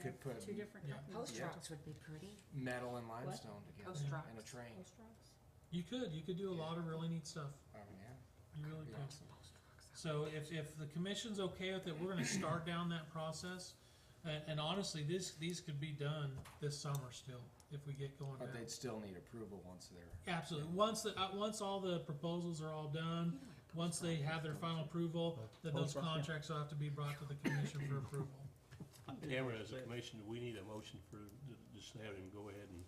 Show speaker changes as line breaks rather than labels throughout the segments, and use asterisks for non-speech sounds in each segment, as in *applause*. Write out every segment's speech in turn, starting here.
could put
Two different
Yeah.
companies.
Post
Yeah.
trucks would be pretty.
metal and limestone together
Post
and a
trucks.
train.
Post trucks?
You could, you could do a lot of really neat stuff.
I mean, yeah,
You really
be
could.
awesome.
So if, if the commission's okay with it, we're gonna start down that process. And, and honestly, this, these could be done this summer still, if we get going
But
now.
they'd still need approval once they're.
Absolutely. Once the, uh, once all the proposals are all done, once they have their final approval, then those
Post rock, yeah.
contracts will have to be brought to the commission for approval.
Cameron, as a commission, we need a motion for, just have him go ahead and,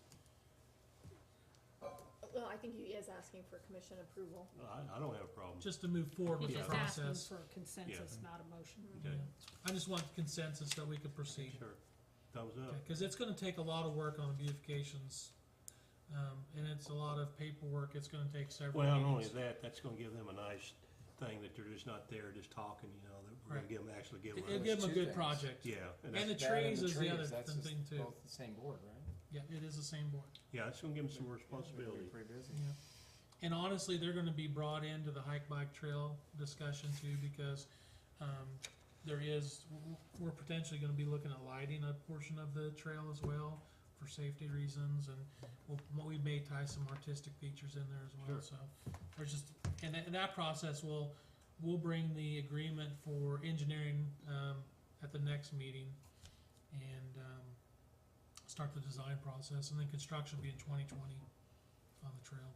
Well, I think he is asking for commission approval.
I, I don't have a problem.
Just to move forward with
He's
the
just asking
process.
for consensus, not a motion.
Okay,
I just want consensus that we could proceed.
sure. Thumbs up.
Because it's going to take a lot of work on the beautifications, um, and it's a lot of paperwork. It's going to take several.
Well, not only
meetings.
that, that's gonna give them a nice thing that they're just not there just talking, you know, that we're gonna
Right.
give them, actually give them.
It- it'll
There's
give them a
two
good
things.
project.
Yeah,
And
and that's,
the
That and
trees is the other
that's
th-
just
thing too.
Both the same board, right?
Yeah, it is the same board.
yeah, that's gonna give them some
They're gonna be
responsibility.
Pretty busy.
Yeah. And honestly, they're going to be brought into the hike bike trail discussion too, because um, there is w- we're potentially going to be looking at lighting a portion of the trail as well for safety reasons, and we'll, we may tie some artistic features in there as well.
Sure.
So there's just and, that- and that process will we'll bring the agreement for engineering um, at the next meeting, and um, start the design process, and then construction will be in 2020 on the trail.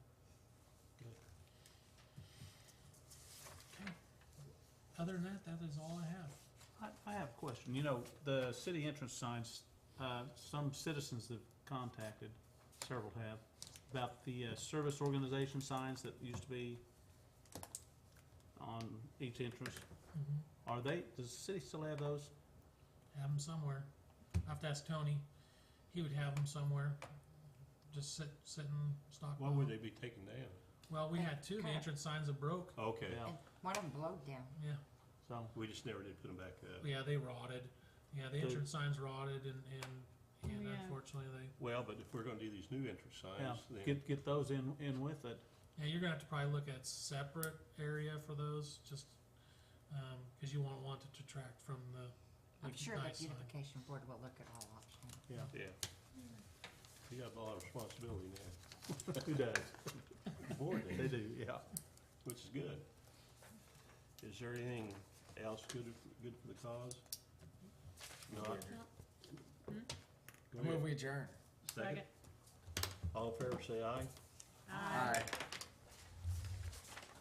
Okay. Other than that, that is all I have.
I, I have a question. You know, the city entrance signs, uh, some citizens have contacted, several have, about the, uh, service organization signs that used to be on each entrance.
Mm-hmm.
Are they, does the city still have those?
Have them somewhere. I have to ask Tony. He would have them somewhere. Just sit, sitting, stock.
Why would they be taken down?
Well, we had two. The
Cut.
entrance signs that broke.
Okay,
Yeah,
And one of them blowed down.
Yeah,
so,
we just never did put them back up.
yeah, they rotted. Yeah, the
They-
entrance signs rotted, and and, and
Oh, yeah.
unfortunately they.
Well, but if we're gonna do these new entrance
yeah,
signs, then,
get, get those in, in with it.
Yeah, you're gonna have to probably look at separate area for those, just because you won't want it to detract from the.
I'm
the
sure the
nice sign.
beautification board will look at all options.
yeah. You got a lot of responsibility now,
*laughs* Who does?
board
They do, yeah.
which is good. Is there anything else good, good for the cause? Not? Go
I move
ahead.
we adjourn.
Second. All in favor, say aye.
Aye.
Aye.